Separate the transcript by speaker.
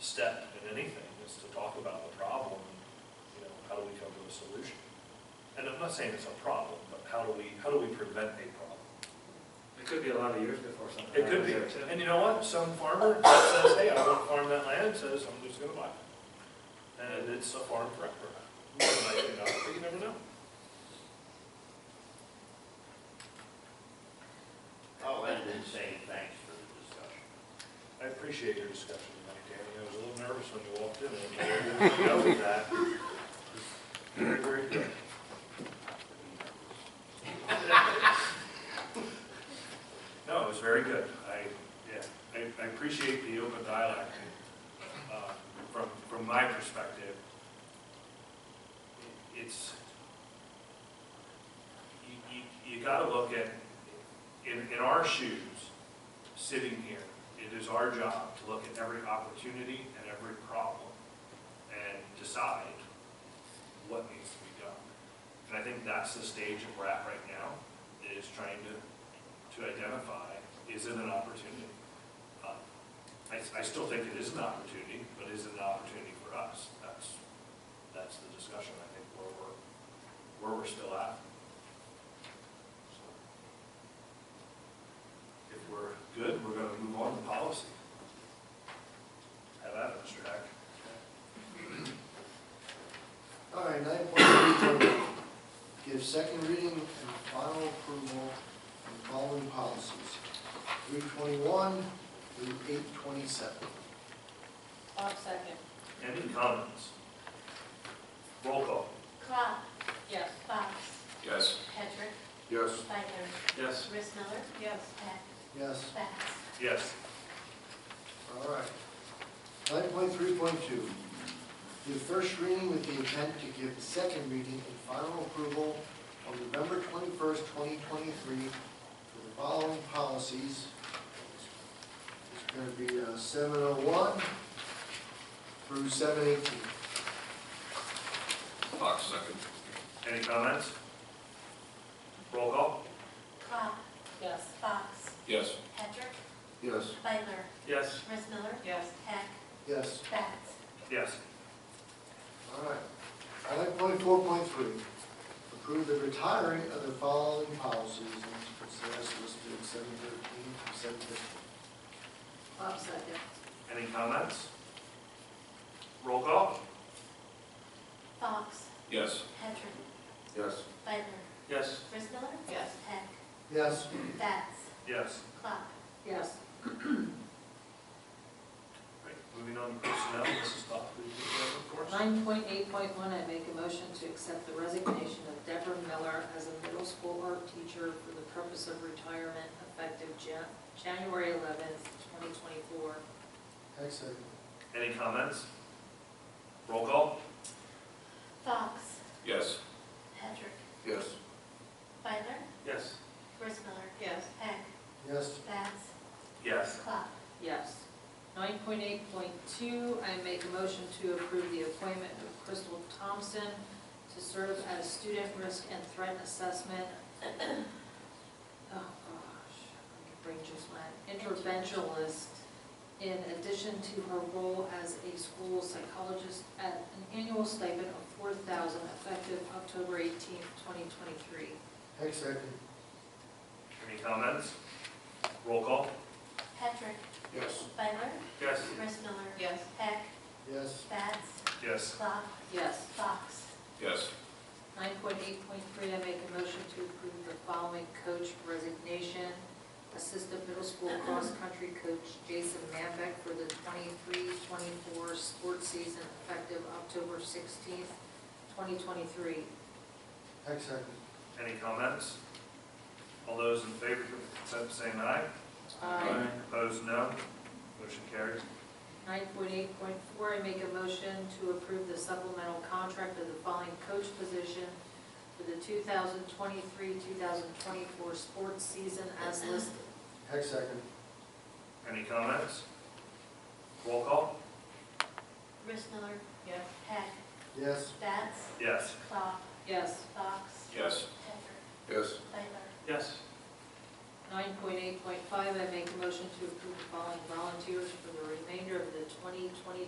Speaker 1: step in anything is to talk about the problem, you know, how do we come to a solution? And I'm not saying it's a problem, but how do we, how do we prevent a problem?
Speaker 2: It could be a lot of years before something.
Speaker 1: It could be,
Speaker 2: happens there, too.
Speaker 1: and you know what, some farmer that says, hey, I won't farm that land, says, I'm just gonna buy it. And it's a farm forever. More than likely not, but you never know.
Speaker 3: I'll end in Oh, saying thanks for the discussion.
Speaker 1: I appreciate your discussion tonight, Danny, I was a little nervous when you walked in, I didn't know with that. Very, very good. No, it was very good, I, yeah, I, I appreciate the open dialogue, uh, from, from my perspective. It's, you, you, you gotta look at, in, in our shoes, sitting here, it is our job to look at every opportunity and every problem and decide what needs to be done. And I think that's the stage that we're at right now, is trying to, to identify, is it an opportunity? Uh, I, I still think it is an opportunity, but is it an opportunity for us? That's, that's the discussion, I think, where we're, where we're still at. So. If we're good, we're gonna move on to policy. Have at it, Mr. Hack.
Speaker 4: All right, nine point three, give second reading and final approval of the following policies. Three twenty-one through eight twenty-seven.
Speaker 5: Bob second.
Speaker 1: Any comments? Roll call.
Speaker 6: Clock,
Speaker 5: Yes.
Speaker 6: Fox,
Speaker 7: Yes.
Speaker 6: Patrick,
Speaker 7: Yes.
Speaker 6: Spiker,
Speaker 2: Yes,
Speaker 6: Chris Miller,
Speaker 5: Yes.
Speaker 6: Pat,
Speaker 4: Yes,
Speaker 6: Bax.
Speaker 1: Yes.
Speaker 4: all right. Nine point three point two, give first reading with the intent to give second reading and final approval on November twenty-first, twenty twenty-three for the following policies. It's gonna be seven oh one through seven eighteen.
Speaker 7: Fox second.
Speaker 1: Any comments? Roll call.
Speaker 6: Clock,
Speaker 5: Yes.
Speaker 6: Fox,
Speaker 7: Yes.
Speaker 6: Patrick,
Speaker 4: Yes.
Speaker 6: Spiker,
Speaker 2: yes,
Speaker 6: Chris Miller,
Speaker 5: Yes.
Speaker 6: Pat,
Speaker 4: Yes.
Speaker 6: Bax.
Speaker 1: Yes.
Speaker 4: All right. Item point four point three, approve the retiring of the following policies and consider as listed in seven thirteen through seven fifteen.
Speaker 5: Bob second.
Speaker 1: Any comments? Roll call.
Speaker 6: Fox,
Speaker 7: Yes.
Speaker 6: Patrick,
Speaker 7: Yes.
Speaker 6: Spiker,
Speaker 2: yes,
Speaker 6: Chris Miller,
Speaker 5: Yes.
Speaker 6: Pat,
Speaker 4: Yes.
Speaker 6: Bax.
Speaker 1: Yes.
Speaker 6: Clock,
Speaker 5: Yes.
Speaker 1: Great. Moving on to personnel, Mrs. Spock, please do the report.
Speaker 8: Nine point eight point one, I make a motion to accept the resignation of Deborah Miller as a middle school art teacher for the purpose of retirement effective Jan- January eleventh, twenty twenty-four.
Speaker 4: Excellent.
Speaker 1: Any comments? Roll call.
Speaker 6: Fox,
Speaker 7: Yes.
Speaker 6: Patrick,
Speaker 7: Yes.
Speaker 6: Spiker,
Speaker 2: yes.
Speaker 6: Chris Miller,
Speaker 5: Yes.
Speaker 6: Pat,
Speaker 4: Yes.
Speaker 6: Bax,
Speaker 1: Yes.
Speaker 6: Clock,
Speaker 8: Yes. Nine point eight point two, I make a motion to approve the appointment of Crystal Thompson to serve as student risk and threat assessment. Oh, gosh, I can bring just my interventionist in addition to her role as a school psychologist at an annual stipend of four thousand effective October eighteenth, twenty twenty-three.
Speaker 4: Excellent.
Speaker 1: Any comments? Roll call.
Speaker 6: Patrick,
Speaker 7: Yes.
Speaker 6: Spiker,
Speaker 1: Yes.
Speaker 6: Chris Miller,
Speaker 5: Yes.
Speaker 6: Pat,
Speaker 4: Yes.
Speaker 6: Bax,
Speaker 1: Yes.
Speaker 6: Clock,
Speaker 8: Yes.
Speaker 6: Fox,
Speaker 7: Yes.
Speaker 8: Nine point eight point three, I make a motion to approve the following coach resignation. Assistant middle school cross-country coach Jason Manbeck for the 23-24 sports season effective October sixteenth, twenty twenty-three.
Speaker 4: Excellent.
Speaker 1: Any comments? All those in favor of the consent, say aye.
Speaker 7: Aye.
Speaker 1: Opposed, no. Motion carries.
Speaker 8: Nine point eight point four, I make a motion to approve the supplemental contract of the following coach position for the two thousand twenty-three, two thousand twenty-four sports season as listed.
Speaker 4: Excellent.
Speaker 1: Any comments? Roll call?
Speaker 6: Chris Miller,
Speaker 5: Yes.
Speaker 6: Pat,
Speaker 4: Yes.
Speaker 6: Bax,
Speaker 1: Yes.
Speaker 6: Clock,
Speaker 8: Yes.
Speaker 6: Fox,
Speaker 7: Yes.
Speaker 6: Patrick,
Speaker 7: Yes.
Speaker 6: Spiker,
Speaker 2: Yes,
Speaker 8: Nine point eight point five, I make a motion to approve the following volunteers for the remainder of the 2023-2024